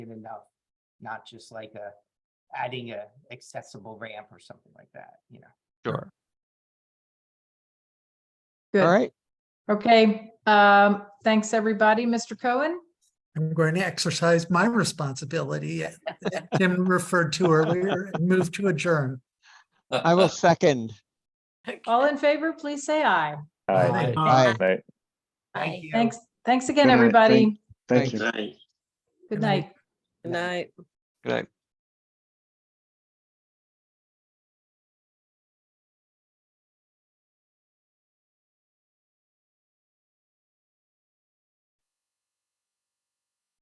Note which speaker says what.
Speaker 1: enough, not just like a, adding a accessible ramp or something like that, you know?
Speaker 2: Sure. All
Speaker 3: Good.
Speaker 2: right.
Speaker 3: Okay. Um, thanks, everybody. Mr. Cohen?
Speaker 4: I'm going to exercise my responsibility that Jim referred to earlier and move to adjourn.
Speaker 2: I will second.
Speaker 3: All in favor, please say aye.
Speaker 5: Aye.
Speaker 2: Aye.
Speaker 5: Aye.
Speaker 1: Thank you.
Speaker 3: Thanks, thanks again,
Speaker 5: Good night. Thank-
Speaker 3: everybody.
Speaker 5: Thank you.
Speaker 6: Night.
Speaker 3: Good night.
Speaker 6: Good night.
Speaker 2: Good night.